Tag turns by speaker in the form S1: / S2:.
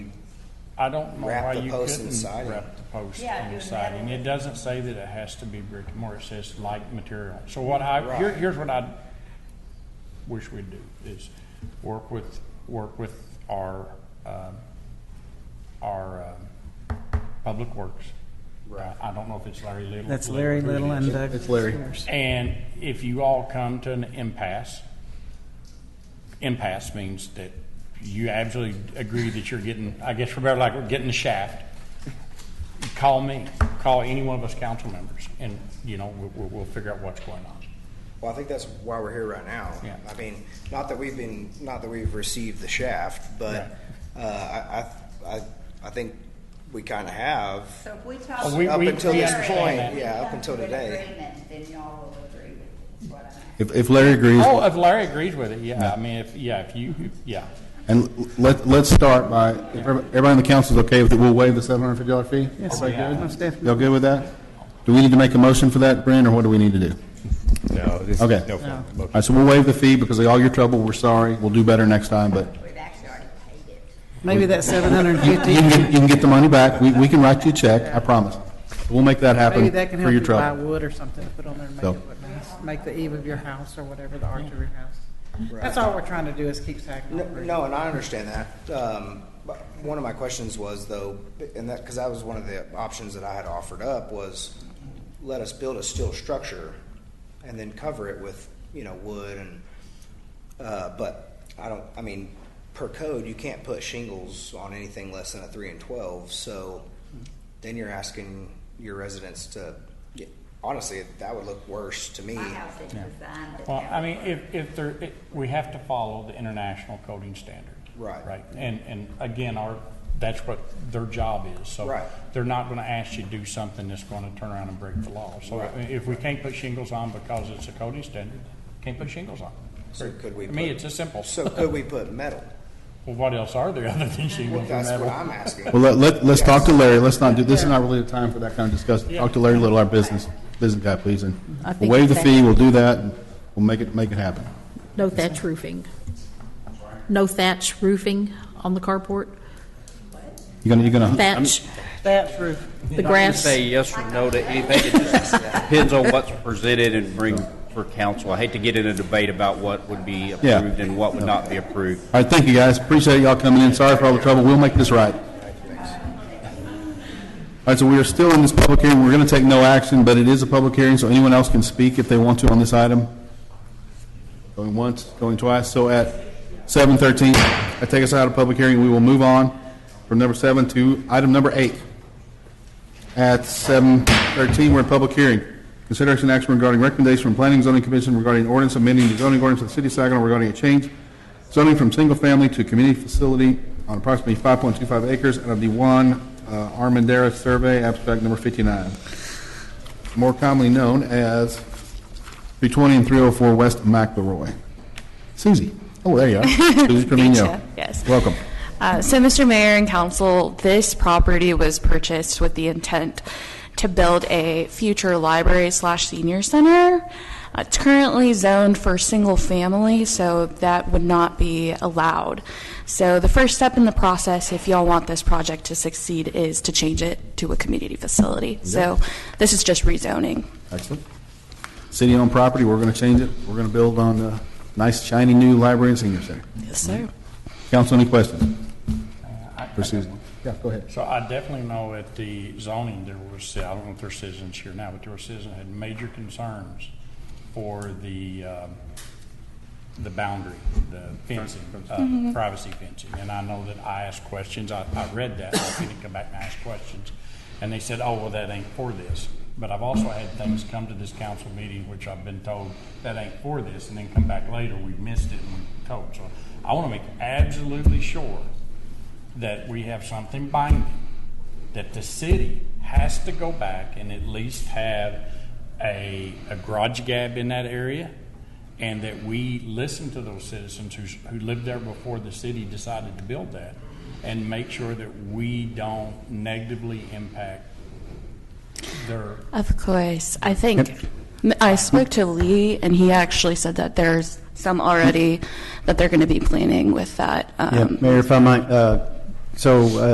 S1: I don't know
S2: Wrap
S1: why
S2: the
S1: you
S2: post in
S1: couldn't
S2: siding.
S1: wrap the post
S3: Yeah,
S1: in
S3: do
S1: the
S3: a
S1: siding.
S3: metal.
S1: It doesn't say that it has to be brick and mortar, it says like material. So what I, here,
S2: Right.
S1: here's what I wish we'd do, is work with, work with our, um, our, um, Public Works.
S2: Right.
S1: I I don't know if it's Larry Little.
S4: That's Larry
S1: who it
S4: Little
S1: is.
S4: and Doug.
S5: It's Larry.
S4: Summers.
S1: And if you all come to an impasse, impasse means that you absolutely agree that you're getting, I guess we're better like we're getting the shaft. Call me, call any one of us council members, and, you know, we'll, we'll, we'll figure out what's going on.
S2: Well, I think that's why we're here right now.
S1: Yeah.
S2: I mean, not that we've been, not that we've received the shaft, but uh, I, I, I- I think we kind of have.
S3: So if we
S1: Oh,
S3: talk.
S1: we-
S2: Up
S1: we-
S2: until
S1: we
S2: this
S1: understand that.
S2: point, yeah, up
S3: Come
S2: until
S3: to an
S2: today.
S3: agreement, Then y'all will agree with it, is what I'm asking.
S5: If, if Larry agrees,
S1: Oh, if Larry agrees with it, yeah, I mean, if, yeah, if you, yeah.
S5: and let, let's start by, if everybody everybody on the council is okay with it, we'll waive the seven hundred fifty dollar fee?
S4: Yes,
S5: Everybody
S4: sir.
S5: good?
S4: Most definitely.
S5: Y'all good with that? Do we need to make a motion for that, Brent, or what do we need to do?
S6: No, this is
S5: Okay.
S6: no further
S4: No.
S5: All
S6: motion.
S5: right, so we'll waive the fee because of all your trouble, we're sorry, we'll do better next time, but
S3: We've actually already paid it.
S4: Maybe that seven hundred and
S5: you
S4: fifty,
S5: can get, you can get the money back, we, we can write you a check, I promise. We'll make that
S4: maybe
S5: happen
S4: that can
S5: for
S4: help you
S5: your
S4: buy
S5: trouble.
S4: wood or something to put on there and make
S5: So-
S4: it look nice. Make the eve of your house or whatever, the arch of your house. That's all we're trying to do is keep tagging
S2: No-
S4: on. brick.
S2: No, and I understand that. Um, but one of my questions was though, and that, because that was one of the options that I had offered up was, let us build a steel structure and then cover it with, you know, wood and, uh, but I don't, I mean, per code, you can't put shingles on anything less than a three and twelve, so then you're asking your residents to, honestly, that would look worse to me.
S3: My house is designed to.
S1: Well,
S3: have-
S1: I mean, if, if there, it- we have to follow the international coding standard.
S2: Right.
S1: Right, and, and again, our, that's what their job is, so.
S2: Right.
S1: They're not gonna ask you to do something that's gonna turn around and break the law. So I mean, if we can't put shingles on because it's a coding standard, can't put shingles on.
S2: So could we
S1: To me,
S2: put-
S1: it's as simple.
S2: So could we put metal?
S1: Well, what else are there other than shingles and
S2: That's what
S1: metal?
S2: I'm asking.
S5: Well, let, let, let's talk to Larry, let's not do, this is not really the time for that kind of discussion. Talk to Larry Little, our business, business guy, please, and
S7: I think
S5: we'll waive the
S7: that-
S5: fee, we'll do that, and we'll make it, make it happen.
S7: No thatch roofing. No thatch roofing on the carport?
S5: You gonna, you gonna?
S7: Thatch,
S4: Thatch roof.
S7: the
S8: Not gonna
S7: grass?
S8: say yes or no to anything, it just depends on what's presented and bring for council. I hate to get in a debate about what would be
S5: Yeah.
S8: approved and what would not be approved.
S5: All right, thank you, guys. Appreciate y'all coming in. Sorry for all the trouble. We'll make this right. All right, so we are still in this public hearing. We're going to take no action, but it is a public hearing, so anyone else can speak if they want to on this item. Going once, going twice. So at 7:13, I take us out of public hearing. We will move on from number seven to item number eight. At 7:13, we're in public hearing. Consideration and action regarding recommendation from Planning and Zoning Commission regarding ordinance amending the zoning ordinance of the city of Saginaw regarding a change zoning from single-family to community facility on approximately 5.25 acres out of the one uh, Armendariz Survey, abstract number 59, more commonly known as 320 and 304 West McElroy. Susie, oh, there you are. Susie Trevino.
S9: Gotcha, yes.
S5: Welcome.
S9: Uh, So, Mr. Mayor and Council, this property was purchased with the intent to build a future library slash senior center. Uh, It's currently zoned for single-family, so that would not be allowed. So the first step in the process, if y'all want this project to succeed, is to change it to a community facility. So this is just rezoning.
S5: Excellent. City-owned property, we're going to change it. We're going to build on a nice shiny new library and senior center.
S9: Yes, sir.
S5: Council, any questions?
S1: Uh, I- I
S5: For
S1: got
S5: Susie?
S1: one.
S5: Yeah, go ahead.
S1: So I definitely know at the zoning, there was, I don't know if there's citizens here now, but there were citizens that had major concerns for the, um, the boundary, the fencing, uh, privacy fencing. And I know that I asked questions, I, I read that, I didn't come back and ask questions. And they said, oh, well, that ain't for this. But I've also had things come to this council meeting, which I've been told, that ain't for this, and then come back later, we missed it and we told. So I want to make absolutely sure that we have something binding, that the city has to go back and at least have a, a garage gab in that area, and that we listen to those citizens who, who lived there before the city decided to build that, and make sure that we don't negatively impact their,
S9: Of course. I think m- I spoke to Lee, and he actually said that there's some already that they're going to be planning with that.
S10: Yeah,
S9: um,
S10: Mayor, if I might, uh, so uh,